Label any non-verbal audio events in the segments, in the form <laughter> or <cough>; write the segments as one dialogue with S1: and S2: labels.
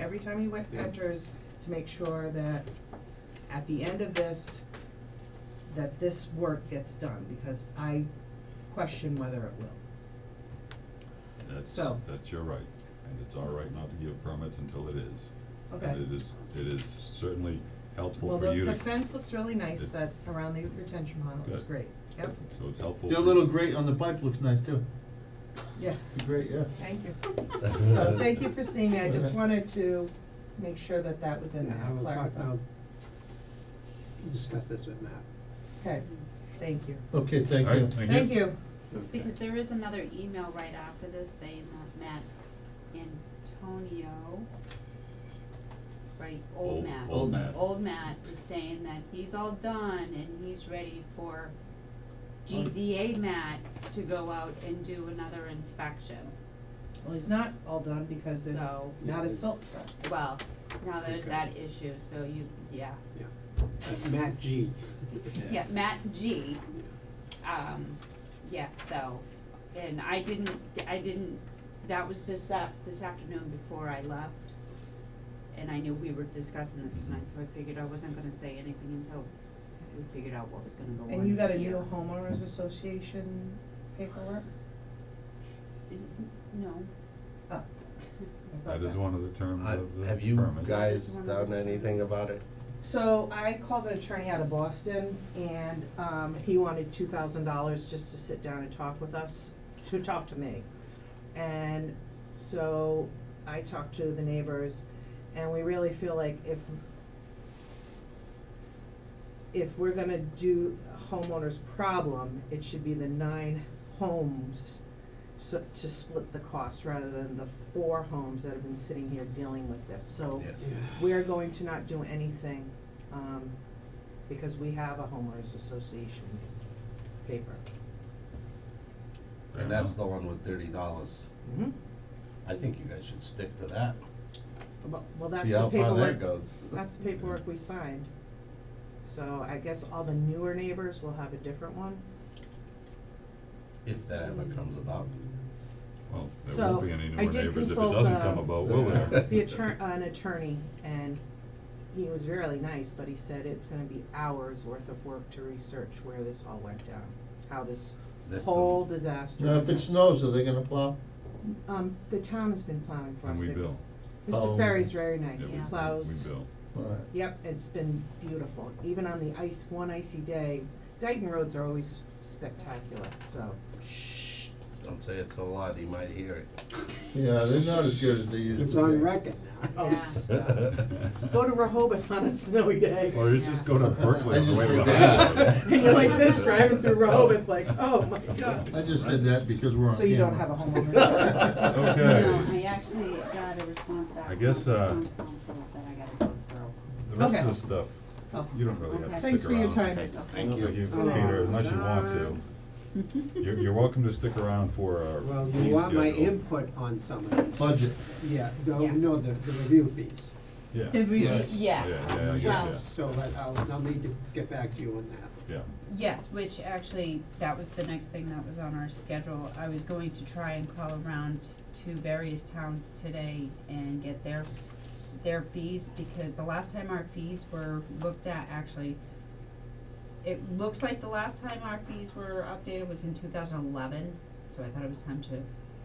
S1: every time he went,
S2: Yeah.
S1: enters, to make sure that at the end of this, that this work gets done, because I question whether it will.
S3: That's,
S1: So-
S3: that's your right, and it's our right not to give permits until it is.
S1: Okay.
S3: And it is, it is certainly helpful
S1: Well,
S3: for
S1: the,
S3: you to.
S1: the fence looks really nice,
S3: It-
S1: that, around the retention pond, it looks
S3: Good.
S1: great, yep,
S3: So it's helpful.
S2: Their
S3: for-
S2: little grate on the pipe looks nice too.
S1: yeah,
S2: Great, yeah.
S1: thank you. <laughs> So, thank you for seeing me, I just wanted to make sure that that was in there,
S4: Yeah, I will talk,
S1: clarify.
S4: I'll discuss this with Matt.
S1: Okay, thank you.
S2: Okay, thank
S3: All right,
S2: you.
S1: Thank you.
S5: It's because there is another email right after this saying that Matt Antonio, right,
S3: Old-
S5: old Matt.
S3: old Matt.
S5: Old Matt is saying that he's all done and he's ready for GZA Matt to go out and do another inspection.
S1: Well, he's not all done because there's
S5: So-
S1: not a silt set.
S5: Well, now there's
S4: Okay.
S5: that issue, so you, yeah.
S4: Yeah, that's Matt G.
S5: Yeah, Matt G,
S4: Yeah.
S5: um, yes, so, and I didn't, I didn't, that was this up, this afternoon before I left. And I knew we were discussing this tonight, so I figured I wasn't gonna say anything until we figured out what was gonna go on here.
S1: And you got a new homeowners association paperwork?
S5: No,
S1: Oh, I thought
S3: That is
S1: that-
S3: one of the terms
S6: I-
S3: of the permit.
S6: Have you guys
S5: Just one
S6: done
S5: of the
S6: anything
S5: times.
S6: about it?
S1: So I called an attorney out of Boston and, um, he wanted two thousand dollars just to sit down and talk with us, to talk to me. And so I talked to the neighbors and we really feel like if if we're gonna do a homeowner's problem, it should be the nine homes so, to split the cost rather than the four homes that have been sitting here dealing with this, so we are going to not do anything, um, because we have a homeowners association paper.
S3: Fair
S6: And that's
S3: enough.
S6: the one with thirty dollars.
S1: Mm-hmm.
S6: I think you guys should stick to that.
S1: Well, well, that's
S6: See
S1: the
S6: how far that
S1: paperwork,
S6: goes.
S1: that's the paperwork we signed. So I guess all the newer neighbors will have a different
S6: <laughs>
S1: one.
S6: If that ever comes about.
S3: Well, there
S1: So,
S3: won't be any
S1: I
S3: newer
S1: did
S3: neighbors if it
S1: consult,
S3: doesn't
S1: uh,
S3: come about, will there?
S6: Yeah.
S1: <laughs> The attorney, an attorney, and he was really nice, but he said it's gonna be hours worth of work to research where this all went down, how this
S6: Is this the-
S1: whole disaster.
S2: Now, if
S1: went
S2: it
S1: down.
S2: snows, are they gonna plow?
S1: Um, the town has been plowing for
S3: And
S1: us.
S3: we
S1: They've-
S3: bill.
S1: Mr.
S2: Oh.
S1: Ferry's very
S3: Yeah,
S1: nice,
S3: we-
S1: he
S5: Yeah.
S3: we-
S1: plows.
S3: We bill.
S2: Alright.
S1: Yep, it's been beautiful, even on the ice, one icy day, Dayton roads are always spectacular, so.
S6: Shh, don't say it so loud, he might hear it.
S2: Yeah, they're not as good as they used to be.
S4: It's on record now.
S1: Oh,
S5: Yeah.
S1: stop. Go to Rehoboth on a snowy day.
S3: Or you just go to Berkeley
S2: I
S3: on the
S2: just
S3: way to the
S2: did
S3: highway.
S2: that.
S1: And <laughs> you're like this, driving through Rehoboth, like, oh my god.
S2: I just said that because we're on
S1: So you don't have a
S3: <laughs>
S2: camera.
S1: homeowner.
S3: Okay.
S5: no, I actually got a response back
S3: I
S5: from the
S3: guess, uh,
S5: town council that I gotta go through.
S3: The rest of
S1: Okay.
S3: the stuff,
S1: Oh.
S3: you don't really have to
S5: Okay.
S3: stick around.
S1: Thanks for your time.
S6: Okay,
S3: I don't
S6: thank you.
S3: think you,
S4: Oh,
S3: Peter, unless you want
S4: no.
S3: to. You're, you're welcome to stick around for our
S4: Well,
S3: fee
S4: you want my
S3: schedule.
S4: input on some of these.
S2: Budget,
S4: Yeah,
S5: Yeah.
S4: no, no, the, the review fees.
S3: Yeah,
S5: The review,
S2: Yes.
S5: yes,
S3: Yeah, yeah, I guess,
S5: well,
S3: yeah.
S4: So that I'll, I'll need to get back to you on that.
S3: yeah.
S5: Yes, which actually, that was the next thing that was on our schedule. I was going to try and call around to various towns today and get their, their fees, because the last time our fees were looked at, actually, it looks like the last time our fees were updated was in two thousand eleven, so I thought it was time to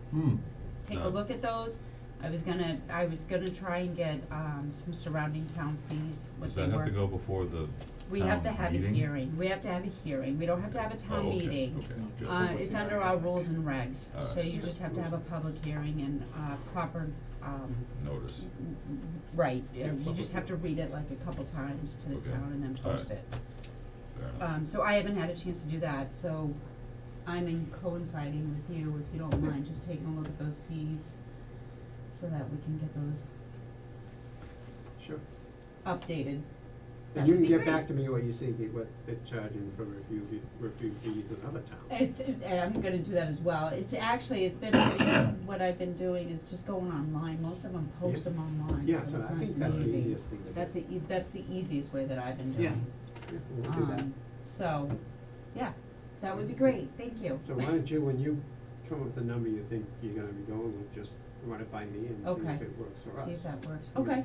S2: hmm,
S5: take a
S3: No.
S5: look at those. I was gonna, I was gonna try and get, um, some surrounding town fees, what
S3: Does
S5: they were.
S3: that have to go before the
S5: We have to
S3: town
S5: have a
S3: Um, meeting?
S5: hearing, we have to have a hearing, we don't have to have a
S3: Oh,
S5: town
S3: okay,
S5: meeting.
S3: okay, good.
S5: Uh, it's under our rules and regs,
S3: All
S5: so
S3: right.
S5: you just have to have a public hearing and, uh, proper, um,
S3: Notice.
S5: right,
S4: Yeah,
S5: you
S4: public
S5: just have to read it like a couple times to the
S3: Okay.
S5: town and then
S3: All right.
S5: post it.
S3: Fair enough.
S5: Um, so I haven't had a chance to do that, so I'm in coinciding with you, if you don't mind, just taking a look at those fees so that we can get those
S4: Sure.
S5: updated.
S4: And you
S5: That'd
S4: can
S5: be
S4: get
S5: great.
S4: back to me what you see, the- what they're charging for review, fee- review fees in other towns.
S5: It's, and I'm gonna do that as well, it's actually, it's been, <coughs> pretty- what I've been doing is just going online, most of them post them online,
S4: Yeah,
S5: so
S4: so
S5: it's nice
S4: I
S5: and easy.
S4: think that's the easiest thing to do.
S5: That's the, e- that's the easiest way that I've been
S4: Yeah.
S5: doing.
S4: Yeah, We'll do that.
S5: Um, So, yeah, that would be great, thank you.
S4: So why don't you, when you come up with a number you think you're gonna be going with, just run it by me and see
S5: Okay.
S4: if it works for us.
S5: See if that works,
S4: I mean,
S5: okay.